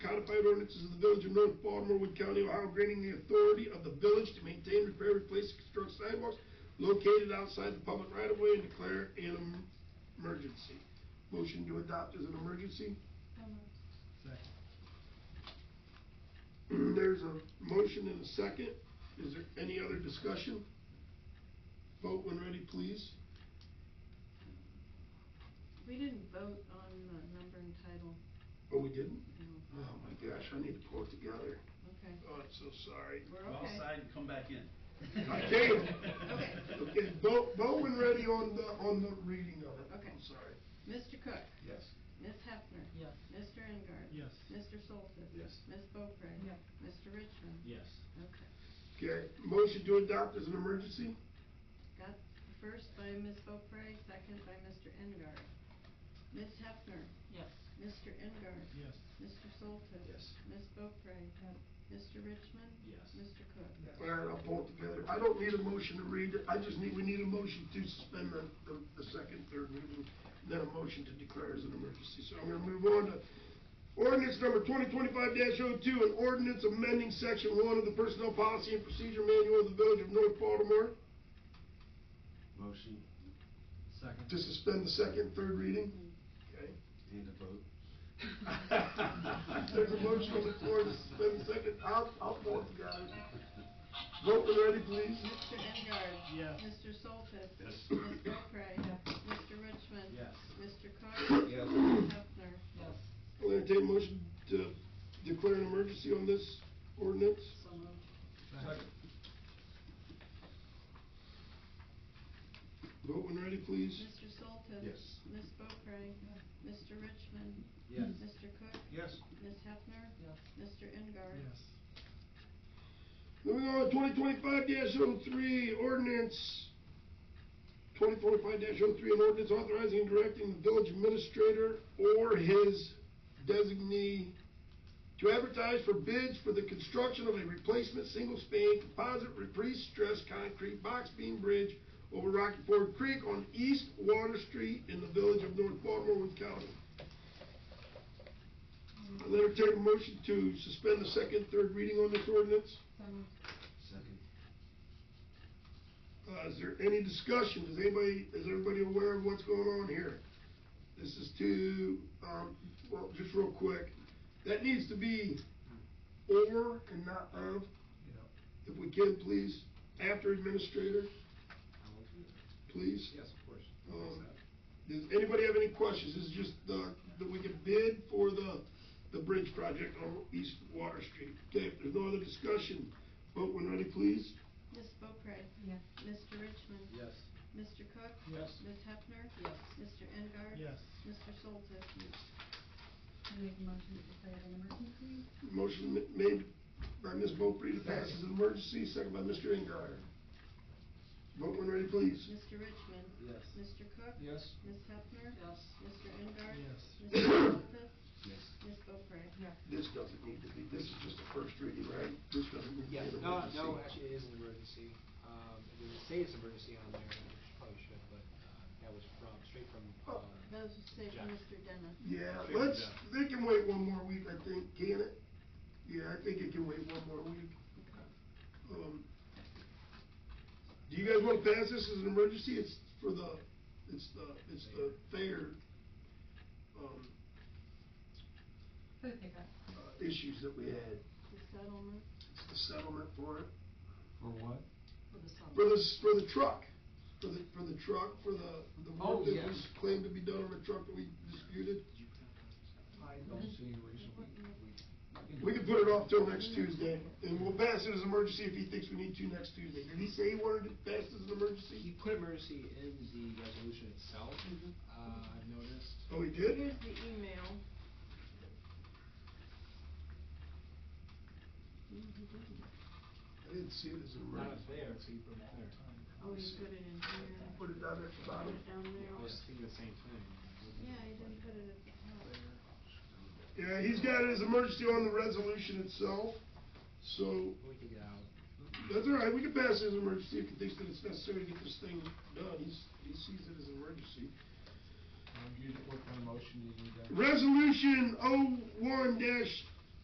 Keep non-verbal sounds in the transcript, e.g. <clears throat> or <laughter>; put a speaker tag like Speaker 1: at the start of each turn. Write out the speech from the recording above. Speaker 1: codified ordinances of the village of North Baltimore, Wood County, Ohio, granting the authority of the village to maintain, repair, replace, and construct sidewalks located outside the public right of way and declare an em- emergency. Motion to adopt as an emergency. <clears throat>
Speaker 2: So
Speaker 3: Second.
Speaker 2: moved.
Speaker 1: There's a motion and a second. Is there any other discussion? Vote when ready, please.
Speaker 2: We didn't vote on the number and title.
Speaker 1: Oh, we didn't?
Speaker 2: No.
Speaker 1: Oh, my gosh, I need to pull it together.
Speaker 2: Okay.
Speaker 1: Oh, I'm so sorry.
Speaker 2: We're
Speaker 3: Go outside
Speaker 2: okay.
Speaker 3: and come back in.
Speaker 1: I can't.
Speaker 2: <laughs> Okay.
Speaker 1: Okay, vote, vote when ready on the, on the reading of it.
Speaker 2: Okay.
Speaker 1: I'm sorry.
Speaker 2: Mr. Cook?
Speaker 3: Yes.
Speaker 2: Ms. Hefner?
Speaker 4: Yes.
Speaker 2: Mr. Engard?
Speaker 3: Yes.
Speaker 2: Mr. Soltis?
Speaker 3: Yes.
Speaker 2: Ms. Boeckrey?
Speaker 4: Yes.
Speaker 2: Mr. Richmond?
Speaker 3: Yes.
Speaker 2: Okay.
Speaker 1: Okay, motion to adopt as an emergency?
Speaker 2: Got the first by Ms. Boeckrey, second by Mr. Engard. Ms. Hefner?
Speaker 4: Yes.
Speaker 2: Mr. Engard?
Speaker 3: Yes.
Speaker 2: Mr. Soltis?
Speaker 3: Yes.
Speaker 2: Ms. Boeckrey? Mr. Richmond?
Speaker 3: Yes.
Speaker 2: Mr. Cook?
Speaker 1: All right, I'll pull it together. I don't need a motion to read it. I just need, we need a motion to suspend the, the, the second, third reading, and then a motion to declare as an emergency. So I'm gonna move on to ordinance number twenty twenty-five 2 an ordinance amending section one of the Personnel Policy and Procedure Manual of the Village of North Baltimore
Speaker 5: Motion
Speaker 3: Second.
Speaker 1: to suspend the second, third reading. Okay?
Speaker 5: and a vote.
Speaker 1: There's a motion on the floor to suspend the second. I'll, I'll pull it together. Vote when ready, please.
Speaker 2: Mr. Engard?
Speaker 3: Yes.
Speaker 2: Mr. Soltis?
Speaker 5: Yes.
Speaker 2: Ms. Boeckrey? Mr. Richmond?
Speaker 3: Yes.
Speaker 2: Mr.
Speaker 5: <coughs>
Speaker 2: Cook?
Speaker 5: Yes.
Speaker 2: Ms. Hefner?
Speaker 4: Yes.
Speaker 1: I'll entertain a motion to declare an emergency on this ordinance.
Speaker 2: So moved.
Speaker 3: Second.
Speaker 1: Vote when ready, please.
Speaker 2: Mr. Soltis?
Speaker 5: Yes.
Speaker 2: Ms. Boeckrey? Mr. Richmond?
Speaker 5: Yes.
Speaker 2: Mr. Cook?
Speaker 5: Yes.
Speaker 2: Ms. Hefner?
Speaker 4: Yes.
Speaker 2: Mr. Engard?
Speaker 3: Yes.
Speaker 1: Moving on, twenty twenty-five 3 ordinance, twenty twenty-five 3 an ordinance authorizing and directing the village administrator or his designee to advertise for bids for the construction of a replacement single-span composite pre-stressed concrete box beam bridge over Rocky Ford Creek on East Water Street in the village of North Baltimore, Wood County. I'll entertain a motion to suspend the second, third reading on this ordinance.
Speaker 4: So moved.
Speaker 5: Second.
Speaker 1: Uh, is there any discussion? Is anybody, is everybody aware of what's going on here? This is to, um, well, just real quick, that needs to be or and not of,
Speaker 3: Yep.
Speaker 1: if we can, please, after administrator,
Speaker 5: I will do that.
Speaker 1: please.
Speaker 5: Yes, of course.
Speaker 1: Um, Does anybody have any questions? This is just the, that we can bid for the, the bridge project on East Water Street. Okay, if there's no other discussion, vote when ready, please.
Speaker 2: Ms. Boeckrey?
Speaker 4: Yes.
Speaker 2: Mr. Richmond?
Speaker 5: Yes.
Speaker 2: Mr. Cook?
Speaker 3: Yes.
Speaker 2: Ms. Hefner?
Speaker 4: Yes.
Speaker 2: Mr. Engard?
Speaker 3: Yes.
Speaker 2: Mr. Soltis?
Speaker 4: Make a motion to declare it an emergency?
Speaker 1: Motion ma- made by Ms. Beaupre to pass as an emergency, second by Mr. Engard. Vote when ready, please.
Speaker 2: Mr. Richmond?
Speaker 5: Yes.
Speaker 2: Mr. Cook?
Speaker 5: Yes.
Speaker 2: Ms. Hefner?
Speaker 4: Yes.
Speaker 2: Mr. Engard?
Speaker 3: Yes.
Speaker 2: Mr. Soltis?
Speaker 5: Yes.
Speaker 2: Ms. Boeckrey?
Speaker 4: Yes.
Speaker 1: This doesn't need to be, this is just a first reading, right? This doesn't need to be
Speaker 6: Yeah,
Speaker 1: an
Speaker 6: no,
Speaker 1: emergency.
Speaker 6: no, actually, it is an emergency. Um, It doesn't say it's emergency on there, which probably should, but uh, that was from, straight from,
Speaker 1: Oh.
Speaker 6: uh,
Speaker 2: That was saved for
Speaker 6: Jack.
Speaker 2: Mr. Dennis.
Speaker 1: Yeah, let's, they can wait one more week, I think, can it? Yeah, I think it can wait one more week. Um, Do you guys want to pass this as an emergency? It's for the, it's the, it's the fair, um,
Speaker 4: Food pickup.
Speaker 1: uh, issues that we had.
Speaker 2: The settlement?
Speaker 1: It's the settlement for it.
Speaker 5: For what?
Speaker 4: For the summer.
Speaker 1: For this, for the truck, for the, for the truck, for the, the
Speaker 6: Oh,
Speaker 1: work that
Speaker 6: yeah.
Speaker 1: was claimed to be done on the truck that we disputed.
Speaker 5: I don't see a reason we, we.
Speaker 1: We can put it off till next Tuesday, and we'll pass it as emergency if he thinks we need to next Tuesday. Did he say he wanted it passed as an
Speaker 6: he
Speaker 1: emergency?
Speaker 6: put emergency in the resolution itself, uh, I've noticed.
Speaker 1: Oh, he
Speaker 2: Here's
Speaker 1: did?
Speaker 2: the email.
Speaker 1: I didn't see it as an
Speaker 6: Not
Speaker 1: emergency.
Speaker 6: there, so you put it there.
Speaker 2: Oh, you put it in here.
Speaker 1: Put it down at the
Speaker 2: Put it
Speaker 1: bottom.
Speaker 2: down
Speaker 6: I
Speaker 2: there.
Speaker 6: was thinking the same thing.
Speaker 2: Yeah, you didn't put it at the top.
Speaker 1: Yeah, he's got it as emergency on the resolution itself, so
Speaker 6: We can get out.
Speaker 1: That's all right, we can pass it as an emergency if he thinks that it's necessary to get this thing done, he's, he sees it as an emergency.
Speaker 5: You, what kind of motion do you need?
Speaker 1: Resolution oh one dash